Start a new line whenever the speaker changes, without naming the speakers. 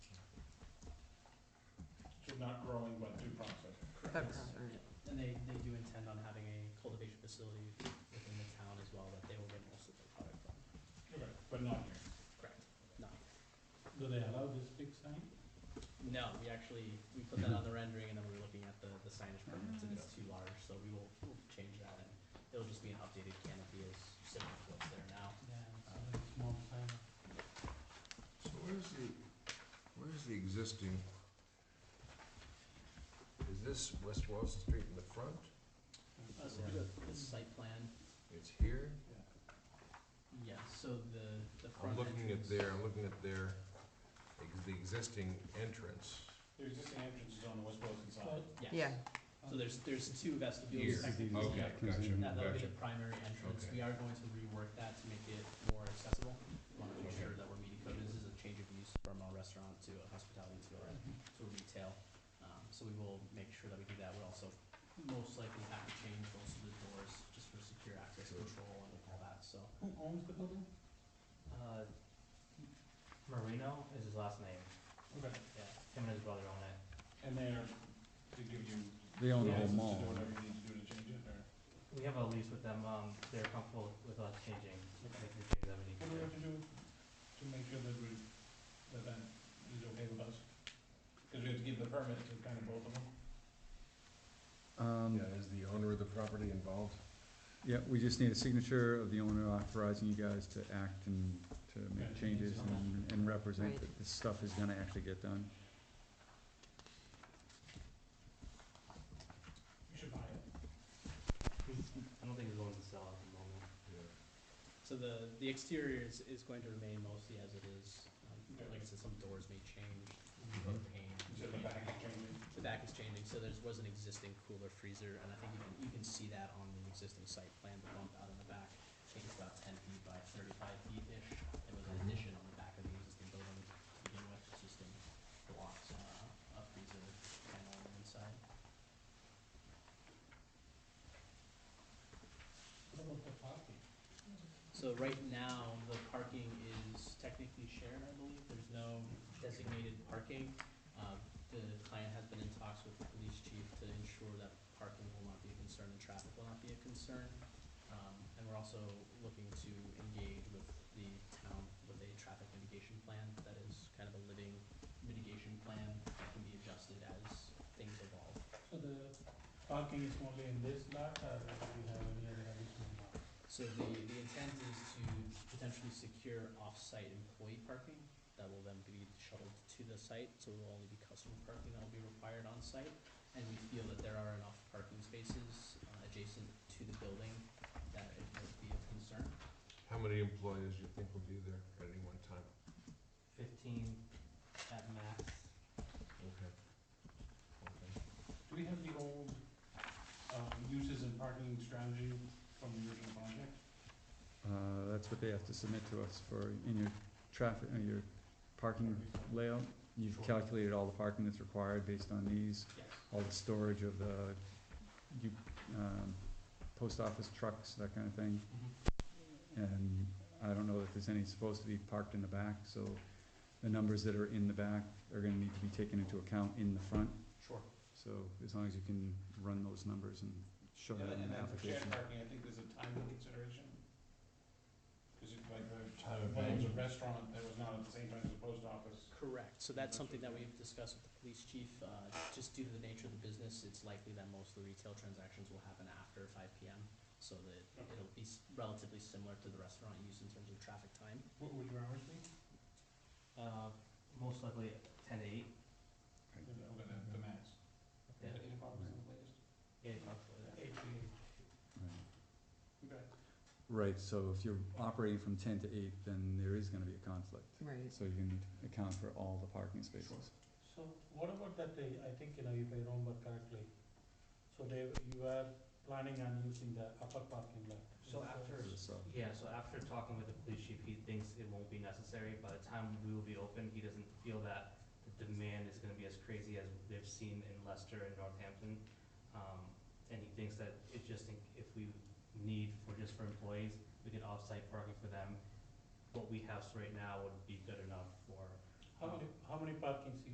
not growing, but do profit.
But
Yes.
probably not.
And they, they do intend on having a cultivation facility within the town as well that they will get most of their product from.
Okay, but not here.
Correct. No,
Do they allow this big sign?
no, we actually, we put that on the rendering and then we were looking at the, the signage permits and it's too large, so we will, we'll change that and it'll just be an updated canopy as similar to what's there now.
Yeah, it's a small sign.
So where's the, where's the existing? Is this West Wall Street in the front?
Oh,
Uh, so the, the site plan,
It's here?
yes, so the, the
I'm
front
looking at
entrance.
their, I'm looking at their, ex- the existing entrance.
The existing entrance is on the West Boylston side.
Yes,
Yeah,
so there's, there's two
Here.
vestibules technically.
Okay, gotcha,
That, that'll be
gotcha.
the primary entrance,
Okay.
we are going to rework that to make it more accessible. We Wanna make sure that we're meeting code, this is a change of use from a restaurant to a hospitality to a, to a retail. Um, so we will make sure that we do that, we'll also most likely have to change most of the doors, just for secure access
Sure.
control and all that, so.
um, Who owns the building?
Uh, Marino is his last name.
Okay,
Yeah, him and his brother own it.
and they are, they give you.
They own the whole
license
mall.
To do whatever you need to do to change it, or?
We have a lease with them. Um, they're comfortable with us changing. They
Okay.
can change that when
What do we
they-
have to do to make sure that we, that that is okay with us? Cause we have to give the permit to kind of both of them.
Um,
Yeah, is the owner of the property involved?
yeah, we just need a signature of the owner authorizing you guys to act and to
Yeah,
make changes
it's on
and, and represent
Right.
that this stuff is gonna actually get done.
You should buy it.
I don't think he's willing to sell at the moment.
So the, the exterior is, is going to remain mostly as it is, um,
Okay.
like I said, some doors may change,
Mhm.
paint.
So the back is changing.
The back is changing, so there was an existing cooler freezer, and I think you can, you can see that on the existing site plan, the bump out in the back. I think it's about ten feet by thirty-five feet-ish, it was an addition on the back of the existing building to begin with, it's just in blocks, uh, a freezer panel on the inside.
What about the parking?
So right now, the parking is technically shared, I believe, there's no designated parking. Uh, the client has been in talks with the police chief to ensure that parking will not be a concern and traffic will not be a concern. Um, and we're also looking to engage with the town with a traffic mitigation plan that is kind of a living mitigation plan that can be adjusted as things evolve.
So the parking is only in this lot, or do we have any other additional lot?
So the, the intent is to potentially secure off-site employee parking that will then be shuttled to the site, so it will only be customer parking that will be required on-site. And we feel that there are enough parking spaces uh, adjacent to the building that it would be of concern.
How many employees do you think will be there at any one time?
Fifteen at max.
Okay. Okay.
Do we have the old, um, uses and parking strategy from the original project?
Uh, that's what they have to submit to us for, in your traffic, uh, your parking layout. You've
Sure.
calculated all the parking that's required based on these,
Yes.
all the storage of the, you, um, post office trucks, that kind of thing.
Mm-hmm.
And I don't know that there's any supposed to be parked in the back, so the numbers that are in the back are gonna need to be taken into account in the front.
Sure.
So as long as you can run those numbers and show
And
that in
and
the
then for shared
application.
parking, I think there's a time consideration. Cause it, like,
Time
the,
of
when it was a
day.
restaurant, that was not at the same time as the post office.
Correct, so that's
That's what
something that
we-
we've discussed with the police chief, uh, just due to the nature of the business, it's likely that most of the retail transactions will happen after five P M. So that
Okay.
it'll be s- relatively similar to the restaurant use in terms of traffic time.
What would your hours be?
Uh, most likely ten to eight.
The, the, the max?
Yeah.
Eight o'clock was the latest?
Eight o'clock. so
Eight, eight, okay.
Right, so if you're operating from ten to eight, then there is gonna be a conflict.
right.
So you're gonna need to account for all the parking spaces.
So what about that, uh, I think, you know, if I remember correctly, so they, you were planning on using the upper parking lot.
So after,
So,
yeah, so after talking with the police chief, he thinks it won't be necessary. By the time we will be open, he doesn't feel that the demand is gonna be as crazy as they've seen in Leicester and Northampton. Um, and he thinks that it's just in- if we need for, just for employees, we could off-site parking for them. What we have right now would be good enough for.
How
um,
many, how many parking